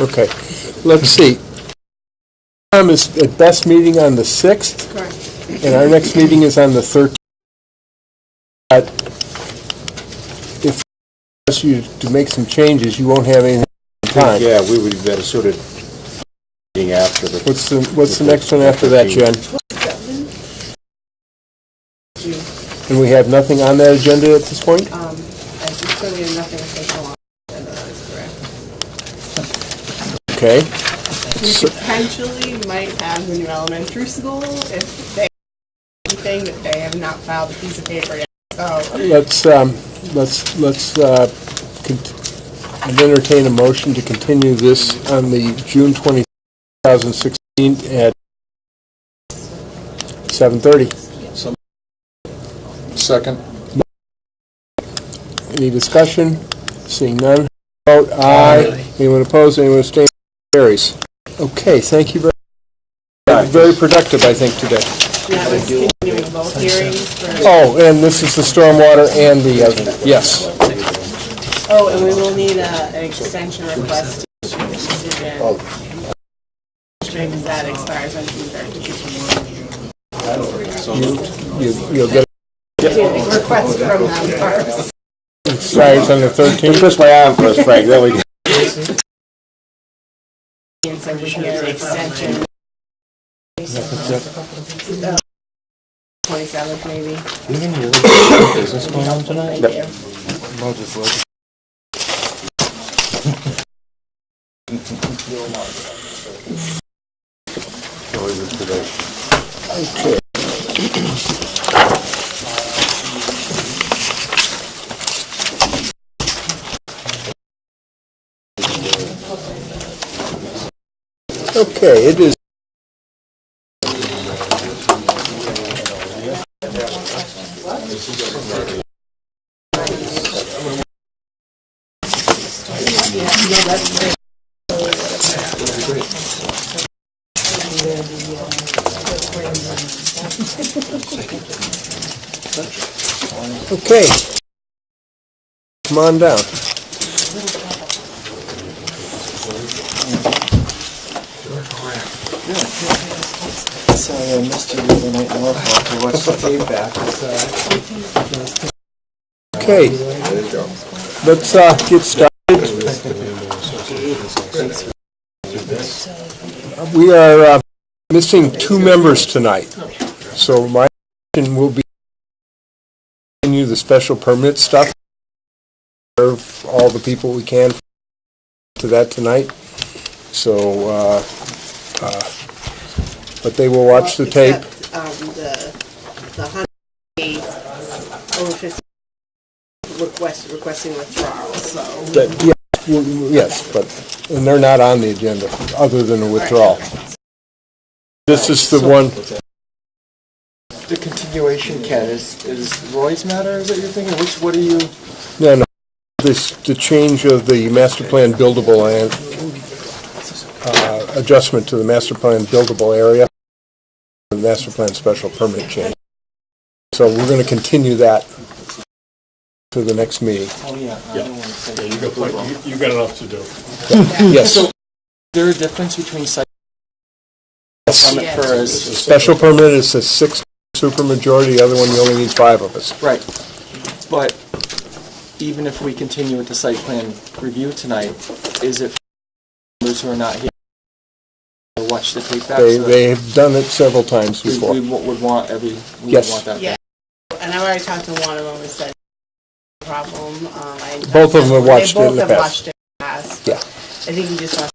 Okay, let's see. Um, is the best meeting on the 6th, Correct. and our next meeting is on the 13th. But if you ask you to make some changes, you won't have anything on time. Yeah, we would be better suited being after the... What's the, what's the next one after that, Jen? And we have nothing on that agenda at this point? Um, as it's going to be nothing official on the agenda, that is correct. Okay, We potentially might have the new elementary school if they, anything that they have not filed a piece of paper yet, so. let's, um, let's, let's, uh, cont- I'd entertain a motion to continue this on the June 20, 2016 at 7:30. Second. Any discussion? Seeing none, vote aye. Anyone opposed, anyone abstaining, carries. Okay, thank you very, very productive, I think, today. That was continuing both hearings for, Oh, and this is the stormwater and the, other. yes. oh, and we will need a, an extension request to issue the decision. Because that expires on June thirtieth. You- You'll get Request from them first. it expires on the 13th. Twist my arm first, Frank, there we go. And so we can get an extension. Twenty-seventh, maybe. Thank you. Okay, it is. Okay. Come on down. Sorry, I missed you the other night in Norfolk. I watched the tape back. Okay. Let's uh, get started. We are uh, missing two members tonight, so my question will be continue the special permit stuff. Serve all the people we can to that tonight. So, uh, uh, but they will watch the tape. Except, um, the, the hundred days, over fifty, request, requesting withdrawal, so. That- yeah, w- w- Yes, but, and they're not on the agenda, other than a withdrawal. This is the one, The continuation, Ken, is, is Roy's matter, is that you're thinking? Which, what are you? oh, no, no, this, the change of the master plan buildable and, uh, adjustment to the master plan buildable area, the master plan special permit change. So we're gonna continue that to the next meeting. Oh, yeah, I don't want to say. You got plenty- you- you got enough to do. Yes, So- Is there a difference between site permit for is, special permit is a six supermajority, the other one, you only need five of us. right, but even if we continue with the site plan review tonight, is it those who are not here? to Watch the tape back? They, so that they have done it several times we- before. We wa- would want every, we would Yes. want that. Yeah, and I've already talked to one of them and said, no problem, um, I. Both of them have watched it in the They both have past. watched it in the past. Yeah. I think he just wants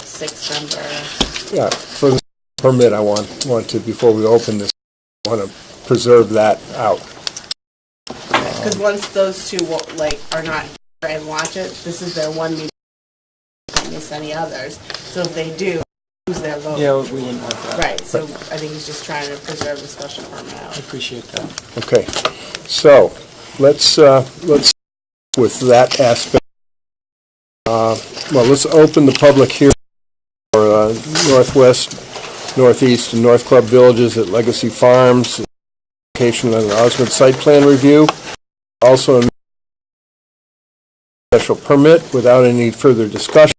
a six number, Yeah, for the permit, I want, want to, before we open this, I want to preserve that out. because once those two will, like, are not here and watch it, this is their one meeting, they miss any others, so if they do, lose their vote. Yeah, we wouldn't want that. Right, so I think he's just trying to preserve the special permit I out. appreciate that. Okay, so, let's, uh, let's, with that aspect, uh, well, let's open the public hearing for uh, Northwest, Northeast, and North Club Villages at Legacy Farms, location of the Osmond Site Plan Review, also a special permit without any further discussion.